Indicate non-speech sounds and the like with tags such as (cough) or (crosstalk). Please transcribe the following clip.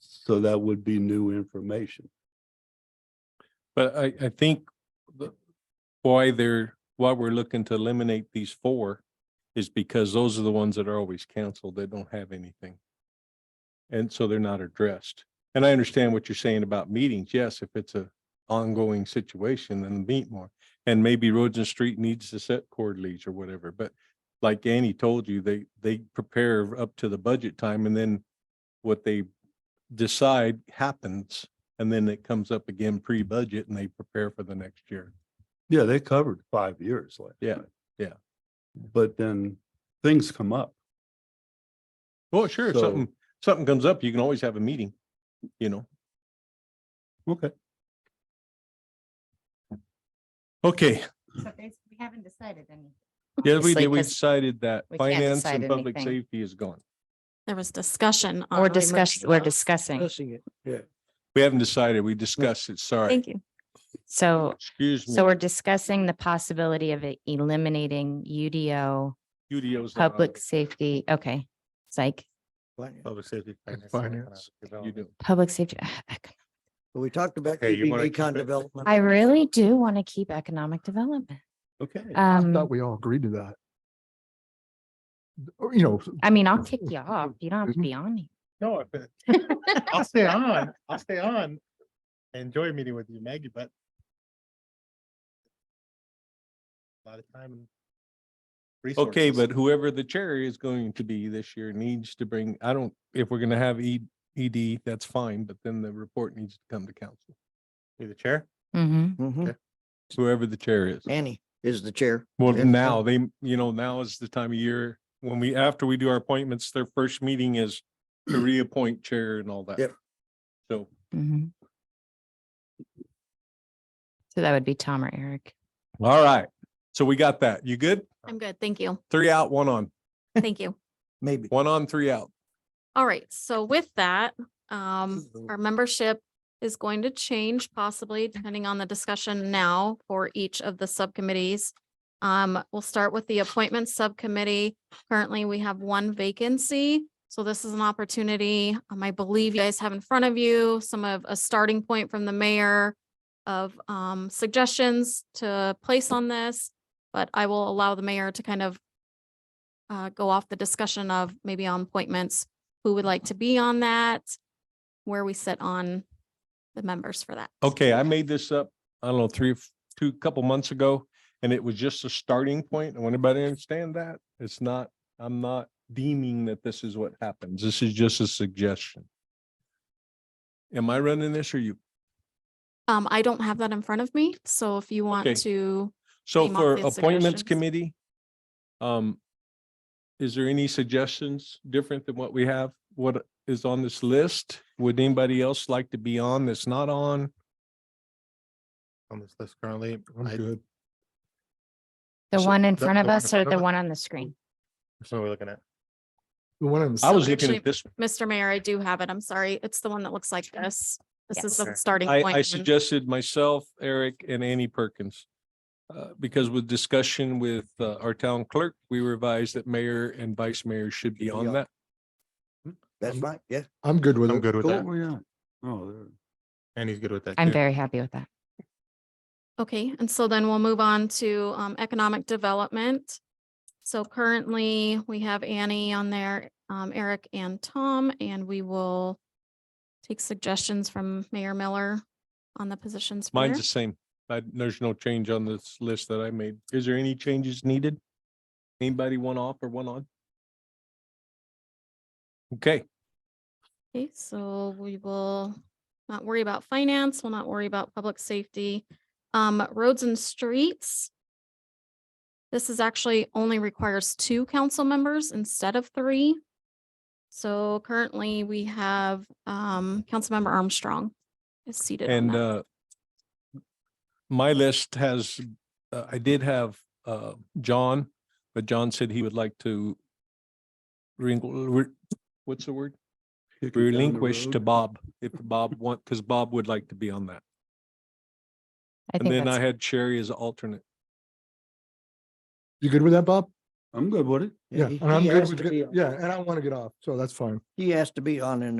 So that would be new information. But I, I think the, why they're, why we're looking to eliminate these four is because those are the ones that are always canceled. They don't have anything. And so they're not addressed. And I understand what you're saying about meetings. Yes, if it's a ongoing situation, then meet more. And maybe roads and street needs to set cord leads or whatever, but like Annie told you, they, they prepare up to the budget time and then what they decide happens. And then it comes up again pre-budget and they prepare for the next year. Yeah, they covered five years. last Yeah, time. yeah. But then things come up. Well, Oh, sure, if So- something, something comes up, you can always have a meeting, you know? Okay. (laughs) Okay, So basically, we haven't decided anything. yeah, we, Obviously, did- we 'cause decided that we can't finance decide and public anything. safety is gone. There was discussion. on Or removal discuss, we're of- discussing. We haven't decided, we discussed it, sorry. Thank you. So, Excuse so me. we're discussing the possibility of e- eliminating UDO, UDO's not on public there. safety, okay. Psych, Oh, Public safety. And finance, finance, and You economic do. development. public safety. But we talked about Okay, you keeping wanna keep econ it- development. I really do want to keep economic development. Okay. Um, we all agreed to that. Or, you know, I mean, I'll kick you off. You don't have to be on. here. No, if it- I'll stay on, I'll stay on. I Enjoy meeting with you, Maggie, but. a Lot of time. and Okay, resources. but whoever the chair is going to be this year needs to bring, I don't, if we're gonna have E, ED, that's fine, but then the report needs to come to council. Be the chair? Mhm. Mhm. Whoever the chair is. Annie is the chair. Well, And- now they, you know, now is the time of year when we, after we do our appointments, their first meeting is (clears throat) to reappoint chair and all that. Yep. So, Mhm. Mm-hmm. So that would be Tom or Eric. all right. So we got that. You good? I'm good. Thank you. Three out, one on, Thank you. Maybe. one on, three out. All right. So with that, um, our membership is going to change possibly depending on the discussion now for each of the subcommittees. Um, we'll start with the appointments subcommittee. Currently, we have one vacancy. So this is an opportunity, um, I believe you guys have in front of you some of a starting point from the mayor of, um, suggestions to place on this. But I will allow the mayor to kind of uh, go off the discussion of maybe on appointments who would like to be on that, where we sit on the members for that. Okay, I made this up, I don't know, three, two, couple months ago, and it was just a starting point. I want everybody to understand that. It's not, I'm not deeming that this is what happens. This is just a suggestion. Am I running this or you? Um, I don't have that in front of me, so if you Okay. want to, So Came up for with appointments suggestions. committee, um, is there any suggestions different than what we have? What is on this list? Would anybody else like to be on that's not on? On this list currently. I- good. The So one in the- front the of one us in or front the of us? one on the screen? Which one are we looking at? the one on the I So was looking actually, at this, Mr. Mayor, I do have it. I'm sorry. It's the one that looks like this. This is the Yes. starting I, point. I one. suggested myself, Eric and Annie Perkins. Uh, because with discussion with uh, our town clerk, we revised that mayor and vice mayor should be on Yeah. that. That's fine, yeah. I'm good with I'm it. good with Go that. over on. Oh, there. And he's good with that. I'm too. very happy with that. Okay, and so then we'll move on to um economic development. So currently, we have Annie on there, um Eric and Tom, and we will take suggestions from Mayor Miller on the positions. for Mine's there. the same. I, there's no change on this list that I made. Is there any changes needed? Anybody one off or one on? Okay, Okay, so we will not worry about finance, we'll not worry about public safety. Um, roads and streets. This is actually only requires two council members instead of three. So currently we have, um, Councilmember Armstrong is seated on and, that. uh, my list has, uh, I did have, uh, John, but John said he would like to wrinkle- re- what's the word? Kick it down the Relinquish to road. Bob, if Bob want, because Bob would like to be on that. I And think then I that's, had Sherry as alternate. You good with that, Bob? I'm good with it. Yeah, he- and I'm he good has with, to be get- on- yeah, and I want to get off, so that's fine. He has to be on an